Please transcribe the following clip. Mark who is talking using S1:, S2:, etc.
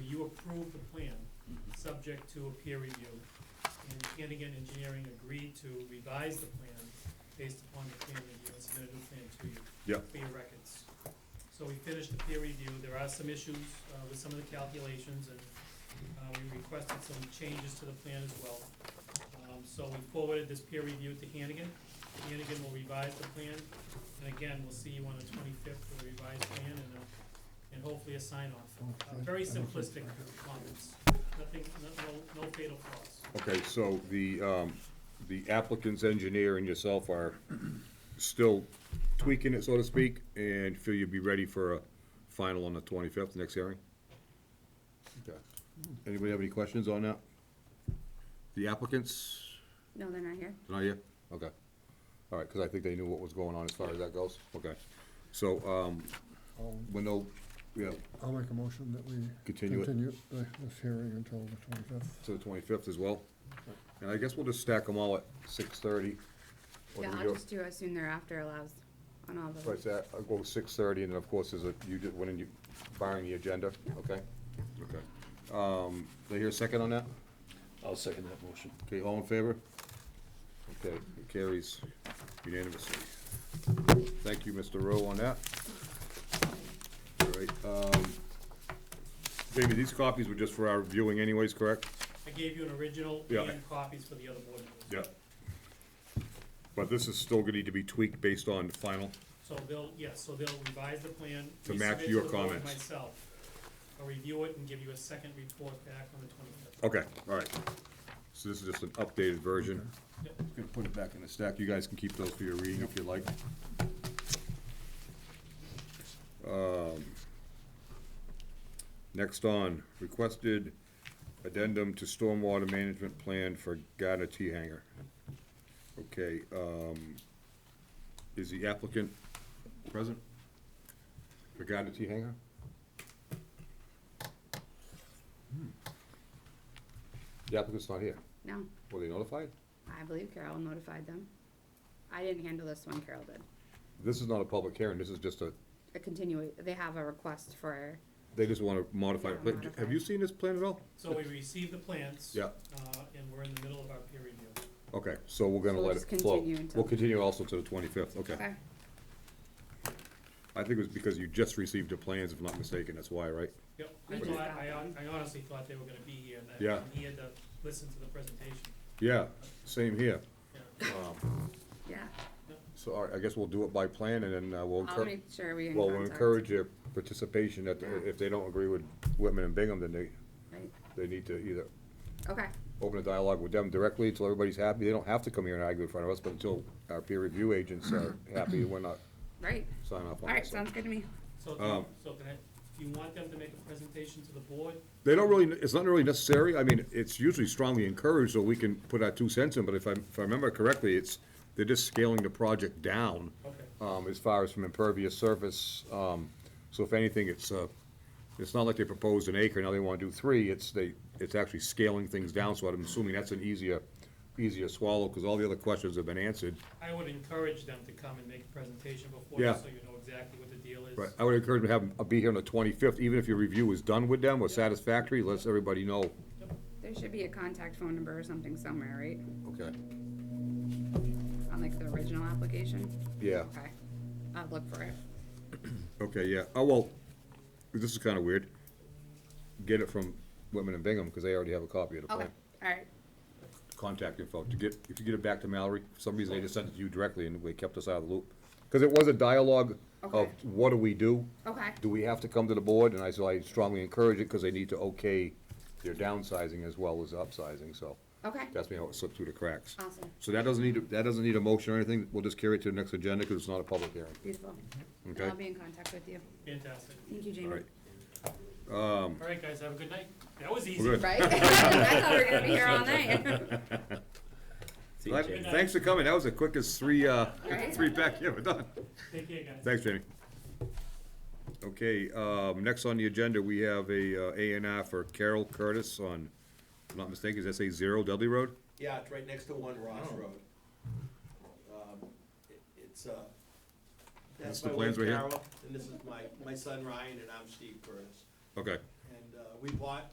S1: you approve the plan, subject to a peer review. And Hannigan Engineering agreed to revise the plan based upon the peer review and submit a new plan to you.
S2: Yeah.
S1: For your records. So we finished the peer review, there are some issues uh, with some of the calculations, and uh, we requested some changes to the plan as well. Um, So we forwarded this peer review to Hannigan, Hannigan will revise the plan, and again, we'll see you on the twenty-fifth for a revised plan and a, and hopefully a sign-off. Uh, Very simplistic comments, nothing, no- no, no fatal flaws.
S2: Okay, so the, um, the applicant's engineer and yourself are still tweaking it, so to speak, and feel you'd be ready for a final on the twenty-fifth, next hearing? Okay. Anybody have any questions on that? The applicants,
S3: No, they're not here.
S2: not yet? Okay. All right, because I think they knew what was going on as far as that goes, okay. So, um,
S4: I'll,
S2: when they'll, yeah,
S4: I'll make a motion that we
S2: Continue it.
S4: continue the, this hearing until the twenty-fifth.
S2: to the twenty-fifth as well. And I guess we'll just stack them all at six-thirty.
S3: Yeah, I'll just do as soon thereafter allows on all
S2: Right,
S3: the,
S2: so I- I'll go six thirty, and then of course, there's a, you did, when you, barring the agenda, okay? Okay. Um, do I hear a second on that?
S5: I'll second that motion.
S2: Okay, all in favor? Okay, it carries unanimously. Thank you, Mr. Rowe, on that. All right, um, Jamie, these copies were just for our viewing anyways, correct?
S1: I gave you an original
S2: Yeah.
S1: and copies for the other board members.
S2: Yeah. But this is still gonna need to be tweaked based on the final,
S1: So they'll, yes, so they'll revise the plan.
S2: To match
S1: resubmit
S2: your
S1: the board
S2: comments.
S1: Myself, I'll review it and give you a second report back on the twenty-fifth.
S2: okay, all right. So this is just an updated version.
S1: Yep,
S2: Gonna put it back in the stack, you guys can keep those for your reading if you like. Um, Next on, requested addendum to stormwater management plan for Gardner Tea Hanger. Okay, um, is the applicant present for Gardner Tea Hanger? Hmm. The applicant's not here,
S3: no,
S2: were they notified?
S3: I believe Carol notified them. I didn't handle this one, Carol did.
S2: This is not a public hearing, this is just a,
S3: A continue, they have a request for,
S2: they just wanna modify, it.
S3: Yeah,
S2: But have you
S3: modify.
S2: seen this plan at all?
S1: so we received the plans.
S2: Yeah.
S1: Uh, and we're in the middle of our peer review.
S2: Okay, so we're gonna
S3: So we'll
S2: let
S3: just
S2: it flow.
S3: continue until-
S2: We'll continue also to the twenty-fifth, okay.
S3: okay,
S2: I think it was because you just received the plans, if I'm not mistaken, that's why, right?
S1: Yep,
S3: We
S1: I
S3: just
S1: thought,
S3: got
S1: I hon-
S3: them.
S1: I honestly thought they were gonna be here, and that-
S2: Yeah.
S1: and he had to listen to the presentation.
S2: Yeah, same here. Um,
S1: Yeah.
S3: yeah.
S2: So, all right, I guess we'll do it by plan and then uh, we'll
S3: I'll
S2: encourage,
S3: make sure we in
S2: well, we'll
S3: contact.
S2: encourage your participation that,
S3: Yeah.
S2: if they don't agree with Whitman and Bingham, then they,
S3: Right,
S2: they need to either
S3: Okay,
S2: open a dialogue with them directly until everybody's happy. They don't have to come here and argue in front of us, but until our peer review agents are happy, we're not
S3: right,
S2: signing off on it.
S3: alright,
S2: so.
S3: sounds good to me.
S1: So,
S2: Um,
S1: do- so can I, do you want them to make a presentation to the board?
S2: They don't really, it's not really necessary, I mean, it's usually strongly encouraged, so we can put our two cents in, but if I, if I remember correctly, it's, they're just scaling the project down,
S1: Okay.
S2: um, as far as from impervious surface, um, so if anything, it's, uh, it's not like they proposed an acre, now they wanna do three, it's, they, it's actually scaling things down, so I'm assuming that's an easier, easier swallow, cause all the other questions have been answered.
S1: I would encourage them to come and make a presentation before,
S2: Yeah.
S1: so you know exactly what the deal is.
S2: Right, I would encourage them to have, uh, be here on the twenty-fifth, even if your review is done with them or satisfactory, lets everybody know,
S3: There should be a contact phone number or something somewhere, right?
S2: okay,
S3: On like the original application?
S2: yeah.
S3: Okay, I'll look for it.
S2: Okay, yeah, oh, well, this is kinda weird. Get it from Whitman and Bingham, cause they already have a copy of the
S3: Okay,
S2: plan.
S3: alright,
S2: Contact info, to get, if you get it back to Mallory, for some reason they just sent it to you directly and they kept us out of the loop. Cause it was a dialogue of
S3: Okay.
S2: what do we do?
S3: okay,
S2: Do we have to come to the board? And I, so I strongly encourage it, cause they need to okay their downsizing as well as upsizing, so.
S3: okay,
S2: That's me how it slipped through the cracks.
S3: awesome,
S2: So that doesn't need, a- that doesn't need a motion or anything, we'll just carry it to the next agenda, cause it's not a public hearing,
S3: beautiful.
S2: okay?
S3: I'll be in contact with you.
S1: Fantastic.
S3: Thank you,
S2: All
S3: Jamie.
S2: right.
S1: All right, guys, have a good night. That was easy.
S2: Um, We're good.
S3: Right? I thought we were gonna be here all night.
S2: Well, Thanks for coming. That was the quickest three, uh,
S3: Right?
S2: three pack you ever done.
S1: Take care, guys.
S2: Thanks, Jamie. Okay, um, next on the agenda, we have a, uh, A and R for Carol Curtis on, if I'm not mistaken, is that say zero Dudley Road?
S6: Yeah, it's right next to One
S2: Oh.
S6: Ross Road. Um, it- It's, uh,
S2: That's
S6: that's
S2: the
S6: my wife
S2: plans right here?
S6: Carol, and this is my, my son Ryan, and I'm Steve Curtis.
S2: Okay,
S6: And uh, we bought